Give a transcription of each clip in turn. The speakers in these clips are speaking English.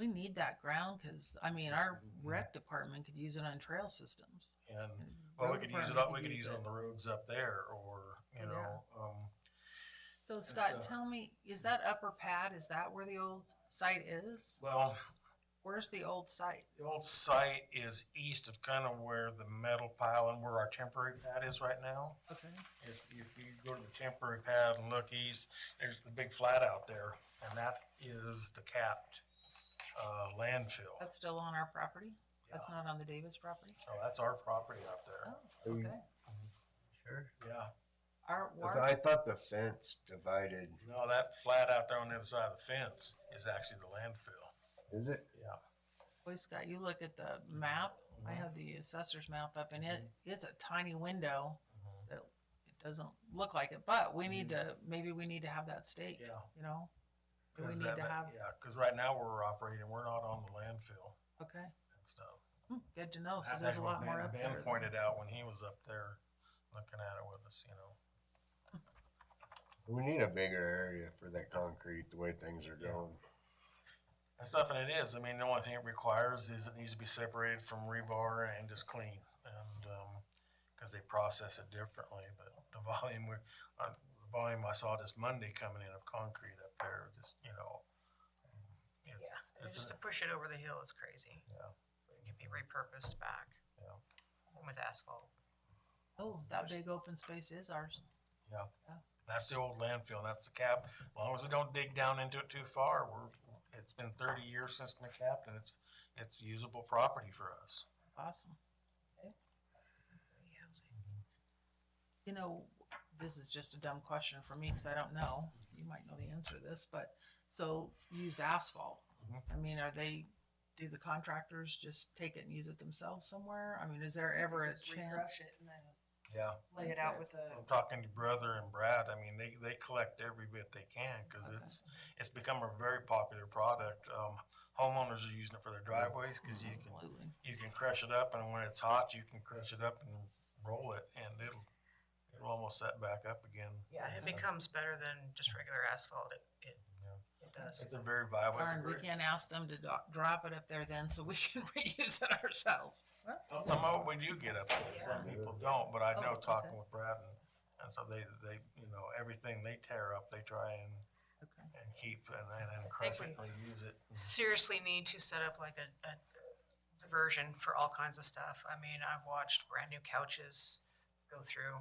We need that ground because, I mean, our Mm-hmm. rec department could use it on trail systems. And, And Oh, well, we road could use it, department on- we could use it on the roads up there or, you Yeah. know, um, So uh, Scott, tell me, is that upper pad, is that where the old site is? well, Where's the old site? the old site is east of kind of where the metal pile and where our temporary pad is right now. Okay. If, if you go to the temporary pad and look east, there's the big flat out there and that is the capped, uh, landfill. That's still on our property? That's Yeah. not on the Davis property? So that's our property out there. Oh, okay. Sure. Oh. Yeah. Our, The- our, I thought the fence divided, No, that flat out there on the other side of the fence is actually the landfill. is it? Yeah. Mm-hmm. boy, Scott, you look at the map. I have the assessor's map up and it, it's a tiny window. Mhm. that it doesn't look like it, but we need to, maybe we need to have that state, Mm-hmm. Yeah. you know? Do we 'Cause need that- to have, Yeah, because right now we're operating, we're not on the landfill okay, and stuff. Hmm, good to know, so That's there's a what lot more Ben- up Ben there. pointed out when he was up there looking at it with us, you know. We need a bigger area for that concrete, the way things are Yeah. going. And stuff, and it is, I mean, the only thing it requires is it needs to be separated from rebar and just clean. And, um 'cause because they process it differently, but the volume, we're, uh, the volume I saw this Monday coming in of concrete up there, just, you know. um, it's- Yeah, and it's just a- to push it over the hill is crazy. Yeah. It can be repurposed back. Yeah. Same with asphalt. Oh, that big open space is ours. That's the old landfill, that's the cap. As long as we don't dig down into it too far, we're, it's been thirty years since the cap and it's, it's usable property for us. Awesome. Yeah, it's like- You know, this is just a dumb question for me, cause I don't know, you might know the answer to this, but, so used asphalt. Mhm. I mean, are they, do the contractors just take it and use it themselves somewhere? I mean, is there ever a Just chance? rebrush it and then Yeah. Lay it out with a, I'm talking to brother and Brad, I mean, they, they collect every bit they can, cause it's, it's become a very popular product. Um, homeowners are using it for their driveways, cause you can, Absolutely. you can crush it up and when it's hot, you can crush it up and roll it and it'll, it'll almost set back up again. yeah, it becomes better than just regular asphalt. It, it, it does. It's a very viable. it's a Darn, we very- can't ask them to do- drop it up there then, so we can reuse it ourselves. Well, Some of it we do get up there, some people don't, but I Oh, know okay. talking with Brad and, and so they, they, you know, everything they tear up, they try and, Okay. and keep and, and and crush it, they use it. Seriously need to set up like a, a diversion for all kinds of stuff. I mean, I've watched brand new couches go through.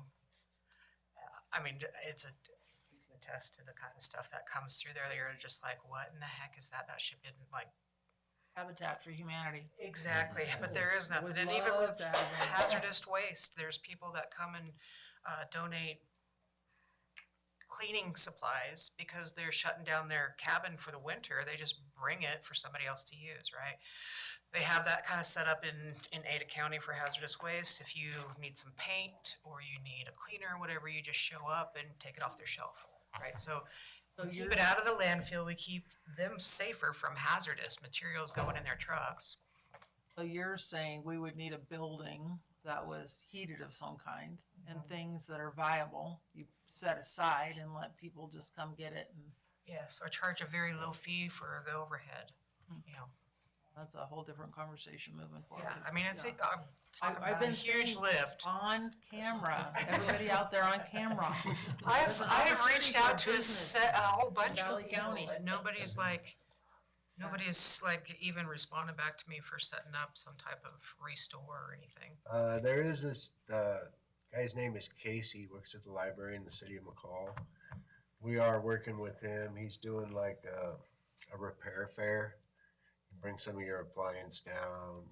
Uh, I mean, it's a, you can attest to the kind of stuff that comes through there. that You're just like, what in the heck is that? That shit didn't like Habitat for Humanity. Exactly, but there is nothing, Would and even love with to have that. hazardous waste, there's people that come and uh, donate cleaning supplies because they're shutting down their cabin for the winter, they just bring it for somebody else to use, right? They have that kind of set up in, in Ada County for hazardous waste, if you need some paint or you need a cleaner, whatever, you just show up and take it off their shelf, right? So So we you're, keep it out of the landfill, we keep them safer from hazardous materials going in their trucks. so you're saying we would need a building that was heated of some kind and things that are viable, you set aside and let people just come get it and Yes, or charge a very low fee for the overhead, you know. that's a whole different conversation moving forward. Yeah, I mean, it's, Yeah. a- I'm talking I've about a been huge saying- lift. On camera, everybody out there on camera. I've, There's an I've opportunity reached for out to a business. set, a whole bunch Valley of people, County. and nobody's like, nobody's like even responded back to me for setting up some type of restore or anything. Uh, there is this, uh, guy's name is Casey, works at the library in the city of McCall. We are working with him. He's doing like a, a repair fair. Bring some of your appliance down,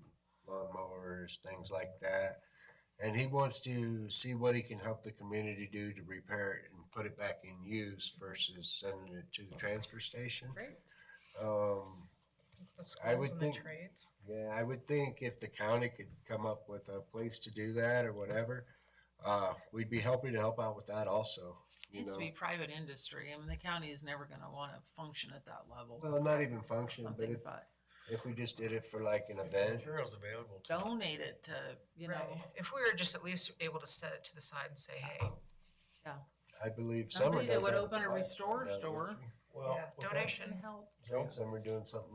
lawnmowers, things like that. And he wants to see what he can help the community do to repair it and put it back in use versus sending it to the transfer station. Great. Um, The I would schools and the think- trades. yeah, I would think if the county could come up with a place to do that or whatever, uh, we'd be happy to help out with that also, you Needs to know. be private industry. I mean, the county is never gonna wanna function at that level. Well, not even function, but Something, if, but if we just did it for like an event, Materials available to. donate it to, you know, Right, if we were just at least able to set it to the side and say, hey, I believe Summer somebody that does would have open a class restore right now, doesn't store she? Well, yeah, with that- donation. and help. Summer doing something